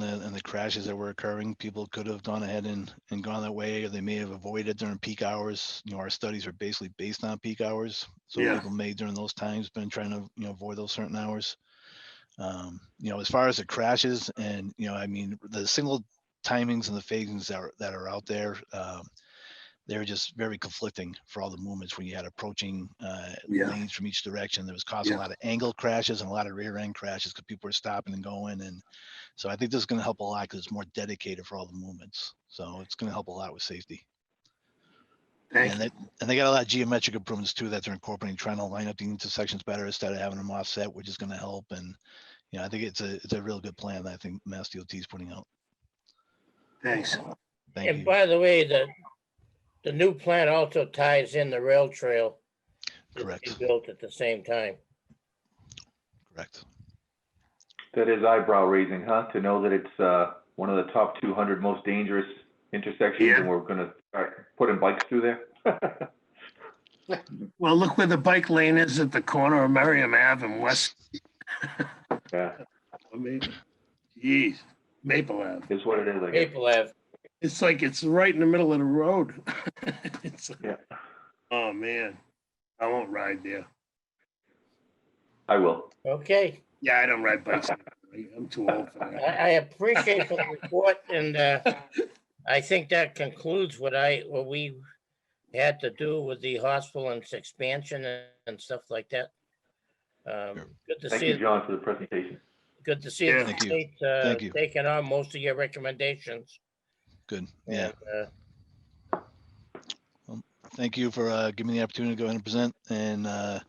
and, and the crashes that were occurring, people could have gone ahead and, and gone that way, or they may have avoided during peak hours. You know, our studies are basically based on peak hours. So Yeah. people may during those times been trying to, you know, avoid those certain hours. Um, you know, as far as the crashes and, you know, I mean, the single timings and the phasings that are, that are out there, um, they're just very conflicting for all the movements when you had approaching, uh, Yeah, lanes from each direction. There was causing a Yeah. lot of angle crashes and a lot of rear end crashes because people were stopping and going. And so I think this is going to help a lot because it's more dedicated for all the movements. So it's going to help a lot with safety. thank And they, and they got a lot of geometric improvements too that they're incorporating, trying to line up the intersections better instead of having them offset, which is going to help. And, you know, I think it's a, it's a real good plan that I think Mass DOT is putting out. thanks. Thank And you. by the way, the, the new plant also ties in the rail trail. that's Correct. being Built at the same time. Correct. That is eyebrow raising, huh? To know that it's, uh, one of the top two hundred most dangerous intersections Yeah. and we're gonna start putting bikes through there? Well, look where the bike lane is at the corner of Merriam Ave and West, Yeah, I mean, geez, Maple Ave. is what it is, I guess. Maple Ave, It's like it's right in the middle of the road. It's- Yeah. Oh, man, I won't ride there. I will. okay. Yeah, I don't ride bikes. I'm too old for I, that. I appreciate the report and, uh, I think that concludes what I, what we had to do with the hospital and its expansion and- and stuff like that. Sure. Um, good to Thank see, you, John, for the presentation. good to see the Yeah. Thank you. state, uh, Thank you. taking on most of your recommendations. Good. Yeah. And, uh, Thank you for, uh, giving me the opportunity to go ahead and present. And, uh,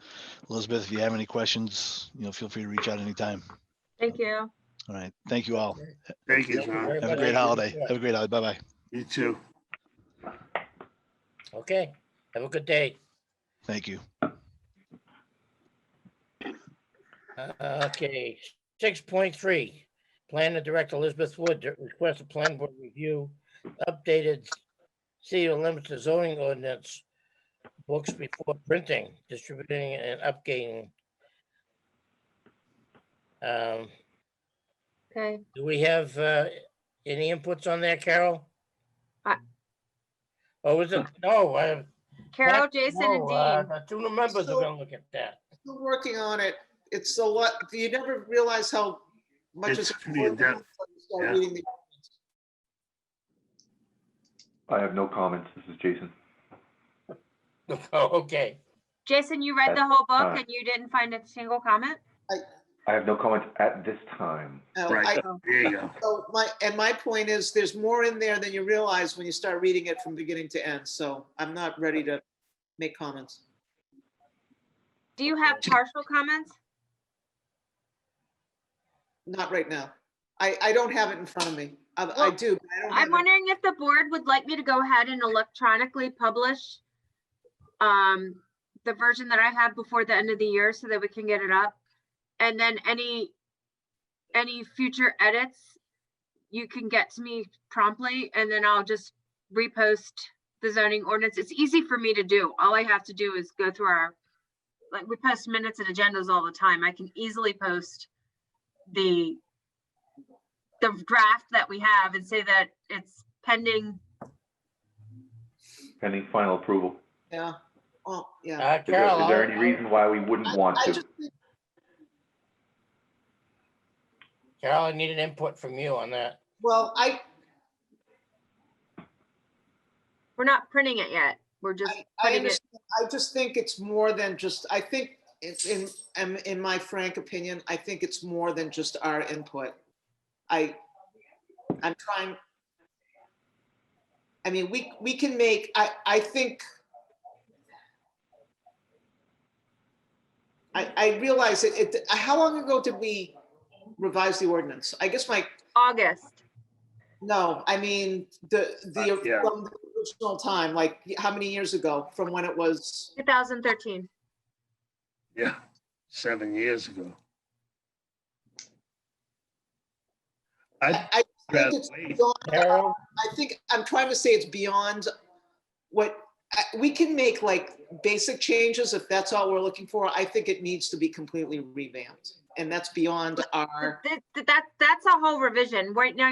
Elizabeth, if you have any questions, you know, feel free to reach out anytime. Thank you. All right. Thank you all. Thank you, thank you John. very Have a much. great holiday. Have a great holiday. Bye-bye. You too. Okay, have a good day. Thank you. Uh, Okay, six point three, Plan to direct Elizabeth Wood to request a plan board review, updated CEO limits to zoning ordinance books before printing, distributing and updating. Um, Okay. Do we have uh, any inputs on that, Carol? I- Oh, is it, no, I. Carol, Matt, Jason, and no, uh, Dean. the Two new members are gonna look at that. Still working on it. It's a lot, you never realize how much It's is. pretty in-depth, yeah. I have no comments. This is Jason. Oh, Okay, Jason, you read the That's whole book fine. and you didn't find a single comment? I have no comments at this time. Right, there you go. So my, and my point is, there's more in there than you realize when you start reading it from beginning to end, so I'm not ready to make comments. Do you have partial comments? Not right now. I, I don't have it in front of me. I, I Well, do, but I don't have I'm it. wondering if the board would like me to go ahead and electronically publish um, the version that I have before the end of the year so that we can get it up. And then any, any future edits, you can get to me promptly and then I'll just repost the zoning ordinance. It's easy for me to do. All I have to do is go through our, like, we post minutes and agendas all the time. I can easily post the the draft that we have and say that it's pending. Pending final approval. Yeah, oh, yeah. Uh, Is there- Carol. is there I'll- any reason why we wouldn't want I to? just think Carol, I need an input from you on that. Well, I, We're not printing it yet. We're just I- I putting it. understand. I just think it's more than just, I think, it's in, in, in my frank opinion, I think it's more than just our input. I, I'm trying. I mean, we, we can make, I, I think. I, I realize it, it, how long ago did we revise the ordinance? I guess my, August. no, I mean, the, the, Uh, yeah. from the original time, like, how many years ago from when it was? 2013. Yeah, seven years ago. I, I I think it's Bradley. beyond, Carol, I think, I'm trying to say it's beyond what, I- we can make like basic changes if that's all we're looking for. I think it needs to be completely revamped. And that's beyond our. That, that, that's a whole revision. Right now,